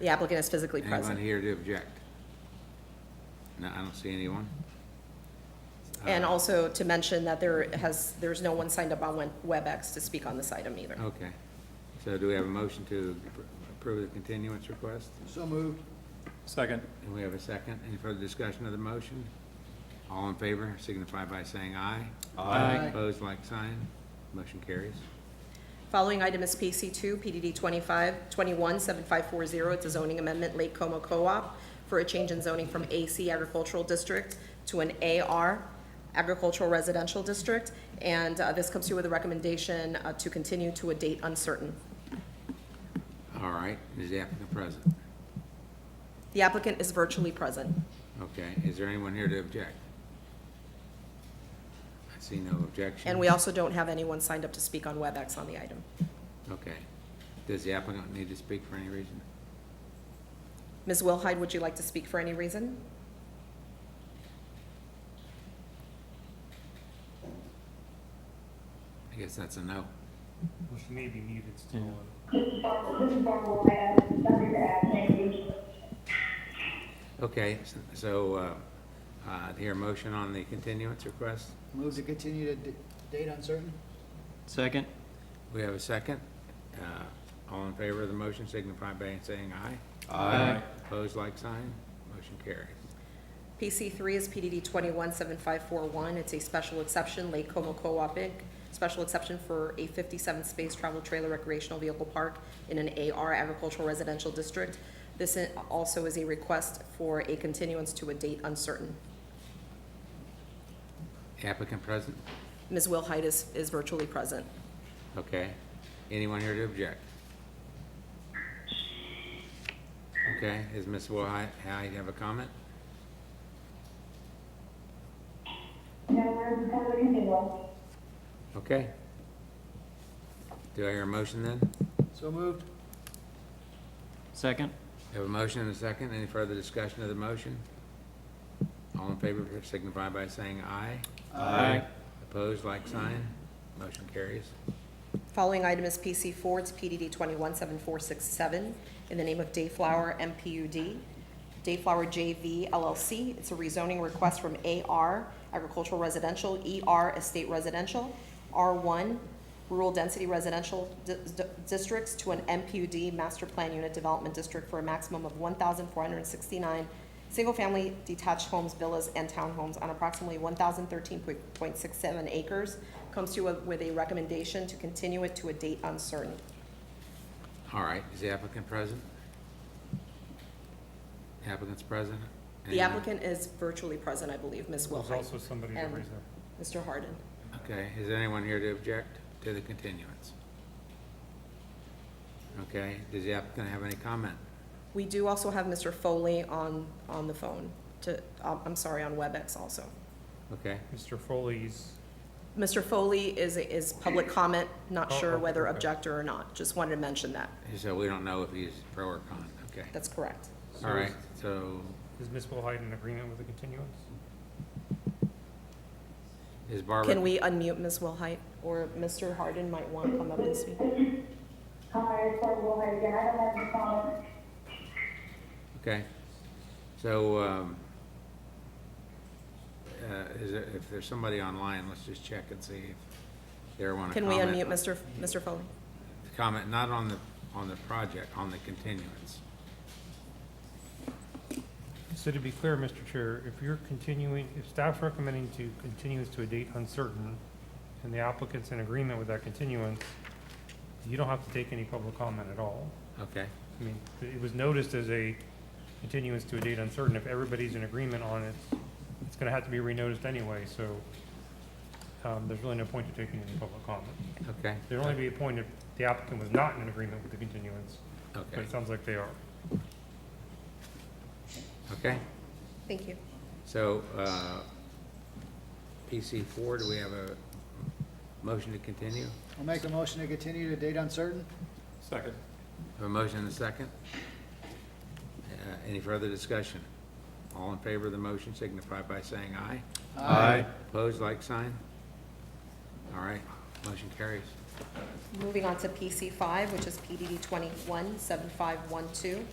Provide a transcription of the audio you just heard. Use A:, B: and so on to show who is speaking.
A: The applicant is physically
B: Anyone
A: present.
B: here to object? No, I don't see anyone.
A: And also to mention that there has, there's no one signed up on Wen- WebEx to speak on this item either.
B: Okay. So do we have a motion to approve the continuance request?
C: So moved.
D: Second.
B: And we have a second. Any further discussion of the motion? All in favor signify by saying aye.
C: Aye.
B: Opposed, like sign. Motion carries.
A: Following item is PC two, PDD twenty-five, twenty-one, seven five four zero. It's a zoning amendment, Lake Como Co-op, for a change in zoning from AC Agricultural District to an AR Agricultural Residential District. And uh, this comes to you with a recommendation uh, to continue to a date uncertain.
B: All right. Is the applicant present?
A: The applicant is virtually present.
B: Okay. Is there anyone here to object? I see no objection.
A: And we also don't have anyone signed up to speak on WebEx on the item.
B: Okay. Does the applicant need to speak for any reason?
A: Ms. Wilhide, would you like to speak for any reason?
B: I guess that's a no.
E: Well, she may be muted still.
F: This is Barbara, this is Barbara Lopez, something to add, thank you.
B: Okay, s- so, uh, uh, do you hear a motion on the continuance request?
C: Move to continue to d- date uncertain?
D: Second.
B: We have a second. Uh, All in favor of the motion signify by saying aye.
D: Aye.
B: Opposed, like sign. Motion carries.
A: PC three is PDD twenty-one seven five four one. It's a special exception, Lake Como Co-op Inc. Special exception for a fifty-seven space travel trailer recreational vehicle park in an AR agricultural residential district. This i- also is a request for a continuance to a date uncertain.
B: Applicant present?
A: Ms. Wilhide is, is virtually present.
B: Okay. Anyone here to object? Okay, is Ms. Wilhite, Howard, you have a comment?
F: No, I'm coming in, well,
B: Okay. Do I hear a motion then?
C: So moved.
D: Second.
B: Have a motion and a second. Any further discussion of the motion? All in favor signify by saying aye.
D: Aye.
B: Opposed, like sign. Motion carries.
A: Following item is PC four, it's PDD twenty-one seven four six seven, in the name of Dayflower MPUD, Dayflower JV LLC. It's a rezoning request from AR Agricultural Residential, ER Estate Residential, R one Rural Density Residential Di- Di- Districts to an MPUD Master Plan Unit Development District for a maximum of one thousand four hundred and sixty-nine single-family detached homes, villas, and townhomes on approximately one thousand thirteen point six seven acres. Comes to you with a recommendation to continue it to a date uncertain.
B: All right, is the applicant present? Applicant's present?
A: The applicant is virtually present, I believe, Ms.
E: There's
A: Wilhite
E: also somebody that
A: and
E: raised their.
A: Mr. Harden.
B: Okay, is there anyone here to object to the continuance? Okay, does the applicant have any comment?
A: We do also have Mr. Foley on, on the phone to, um, I'm sorry, on WebEx also.
B: Okay,
E: Mr. Foley's,
A: Mr. Foley is, is public comment, not
E: Oh,
A: sure
E: okay,
A: whether
E: okay.
A: objector or not, just wanted to mention that.
B: so we don't know if he's pro or con, okay.
A: That's correct.
B: All right, so
E: is Ms. Wilhide in agreement with the continuance?
B: is Barbara?
A: Can we unmute Ms. Wilhite, or Mr. Harden might want to come up and speak?
F: hi, it's Barbara Lopez again, I don't have any comments.
B: Okay, so, um, uh, is there, if there's somebody online, let's just check and see if they want to
A: Can we
B: comment.
A: unmute Mr. Mr. Foley?
B: comment, not on the, on the project, on the continuance.
E: So to be clear, Mr. Chair, if you're continuing, if staff's recommending to continue this to a date uncertain, and the applicant's in agreement with that continuance, you don't have to take any public comment at all.
B: Okay,
E: I mean, it was noticed as a continuance to a date uncertain. If everybody's in agreement on it, it's gonna have to be renoticed anyway, so, um, there's really no point to taking any public comment.
B: okay,
E: There'd only be a point if the applicant was not in agreement with the continuance, but
B: okay,
E: it sounds like they are.
B: okay.
A: Thank you.
B: So, uh, PC four, do we have a motion to continue?
C: I'll make a motion to continue to date uncertain?
D: Second.
B: Have a motion and a second? Uh, Any further discussion? All in favor of the motion signify by saying aye.
D: Aye.
B: Opposed, like sign? All right, motion carries.
A: Moving on to PC five, which is PDD twenty-one seven five one two.